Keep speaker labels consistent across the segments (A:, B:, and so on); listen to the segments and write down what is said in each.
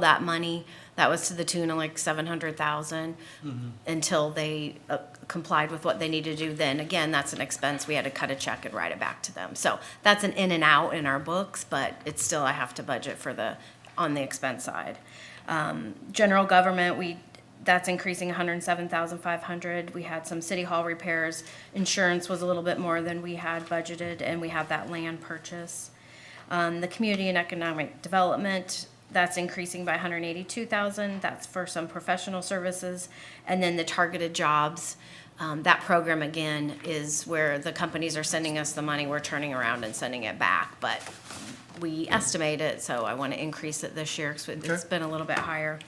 A: that money, that was to the tune of like seven hundred thousand, until they uh, complied with what they needed to do, then again, that's an expense, we had to cut a check and write it back to them. So that's an in and out in our books, but it's still, I have to budget for the, on the expense side. Um, General government, we, that's increasing hundred and seven thousand five hundred, we had some city hall repairs, insurance was a little bit more than we had budgeted, and we have that land purchase. Um, the community and economic development, that's increasing by hundred and eighty-two thousand, that's for some professional services. And then the targeted jobs, um, that program again is where the companies are sending us the money, we're turning around and sending it back, but we estimate it, so I wanna increase it this year, cause it's
B: Okay.
A: been a little bit higher.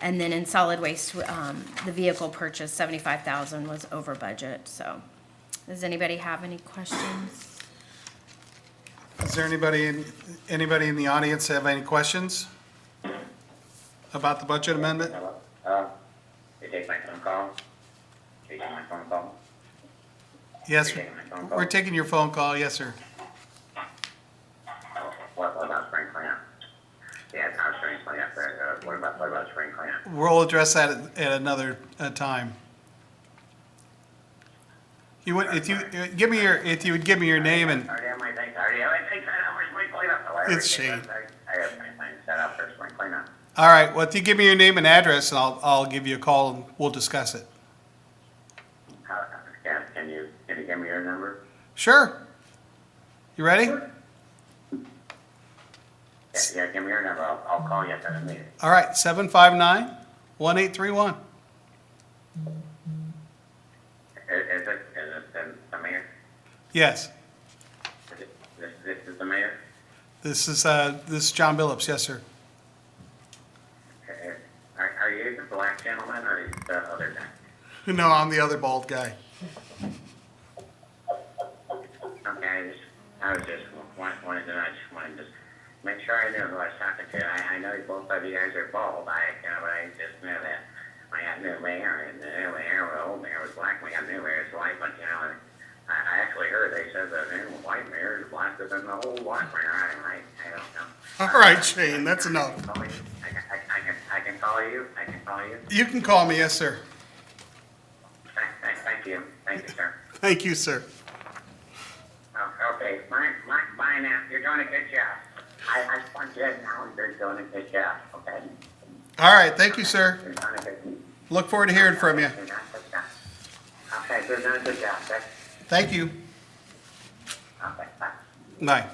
A: And then in solid waste, um, the vehicle purchase, seventy-five thousand was over budget, so. Does anybody have any questions?
B: Is there anybody, in anybody in the audience have any questions about the budget amendment?
C: Hello? Uh, you take my phone call? You take my phone call?
B: Yes,
C: You're taking my phone call?
B: we're taking your phone call, yes, sir.
C: What, what about spring cleanup? Yeah, it's not spring cleanup, but, uh, what about, what about spring cleanup?
B: We'll address that at- at another uh, time. You would, if you, uh, give me your, if you would give me your name and,
C: I already have my things, I already have my things set up for spring cleanup. so I already
B: It's
C: think
B: Shane.
C: I I have my things set up for spring cleanup.
B: all right, well, if you give me your name and address, and I'll, I'll give you a call and we'll discuss it.
C: How, can, can you, can you give me your number?
B: Sure. You ready?
C: Yeah, Yeah, give me your number, I'll, I'll call you after the meeting.
B: All right, seven five nine, one eight three one.
C: Is, is it, is it the- the mayor?
B: Yes,
C: Is it- This, this is the mayor?
B: this is, uh, this is John Billups, yes, sir.
C: Uh, Are, are you the black gentleman or are you the other guy?
B: No, I'm the other bald guy.
C: Okay, I just, I was just wanted, wanted to, I just wanted to just make sure I knew who I was talking to. I, I know you both of you guys are bald. I, you know, but I just knew that I got new mayor and the new mayor, the old mayor was black. We got new mayor is white, but you know, and I, I actually heard they said the new white mayor is blacker than the old white mayor. I, I, I don't know.
B: All right, Shane, that's enough.
C: I can, I, I can, I can call you. I can call you.
B: You can call me, yes, sir.
C: Thank, thank, thank you. Thank you, sir.
B: Thank you, sir.
C: Oh, Okay, mine, mine, mine, uh, you're doing a good job. I, I want you to know you're doing a good job, okay?
B: All right, thank you, sir.
C: You're doing a good.
B: Look forward to hearing from you.
C: You're doing a good job. Okay, you're doing a good job, okay?
B: Thank you.
C: Okay, bye.
B: Bye.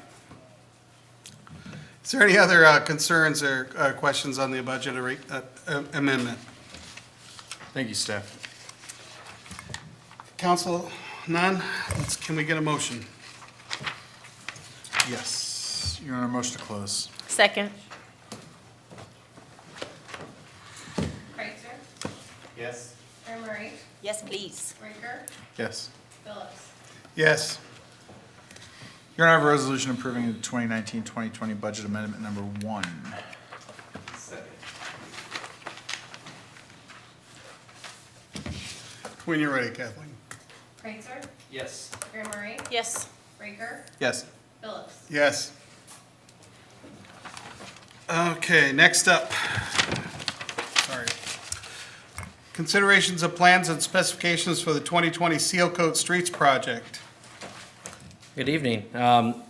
B: Is there any other uh, concerns or uh, questions on the budget or, uh, amendment?
D: Thank you, Steph.
B: Council, none? Let's, can we get a motion?
D: Yes, you're on a motion to close.
E: Second.
F: Kreitzer,
D: Yes.
F: Emery,
E: Yes, please.
F: Rinker,
D: Yes.
F: Phillips.
B: Yes.
D: You're on a resolution approving the 2019-2020 budget amendment number one.
B: When you're ready, Kathleen.
F: Kreitzer,
G: Yes.
F: Emery,
E: Yes.
F: Rinker,
D: Yes.
F: Phillips.
B: Yes. Okay, next up. Sorry. Considerations of plans and specifications for the 2020 Seal Coat Streets Project.
G: Good evening. Um,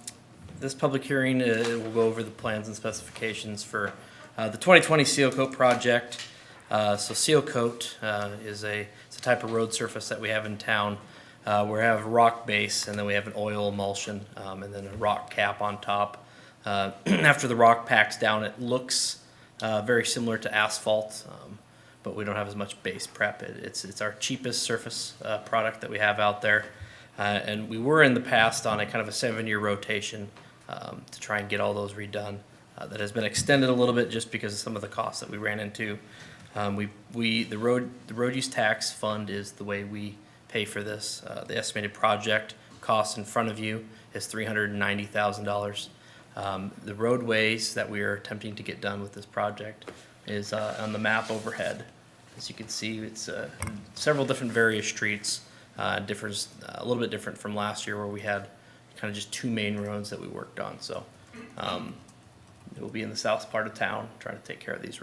G: This public hearing uh, will go over the plans and specifications for uh, the 2020 Seal Coat project. Uh, So Seal Coat uh, is a, it's a type of road surface that we have in town. uh, where We have rock base, and then we have an oil emulsion, um, and then a rock cap on top. Uh, After the rock packs down, it looks uh, very similar to asphalt, um, but we don't have as much base prep. It- It's, it's our cheapest surface uh, product that we have out there. Uh, and we were in the past on a kind of a seven-year rotation um, to try and get all those redone. Uh, that has been extended a little bit just because of some of the costs that we ran into. Um, we, we, the road, the road use tax fund is the way we pay for this. Uh, the estimated project cost in front of you is three hundred and ninety thousand dollars. Um, The roadways that we are attempting to get done with this project is uh, on the map overhead. As you can see, it's uh, several different various streets, uh, differs, a little bit different from last year where we had kind of just two main roads that we worked on. So um, it will be in the south part of town, trying to take care of these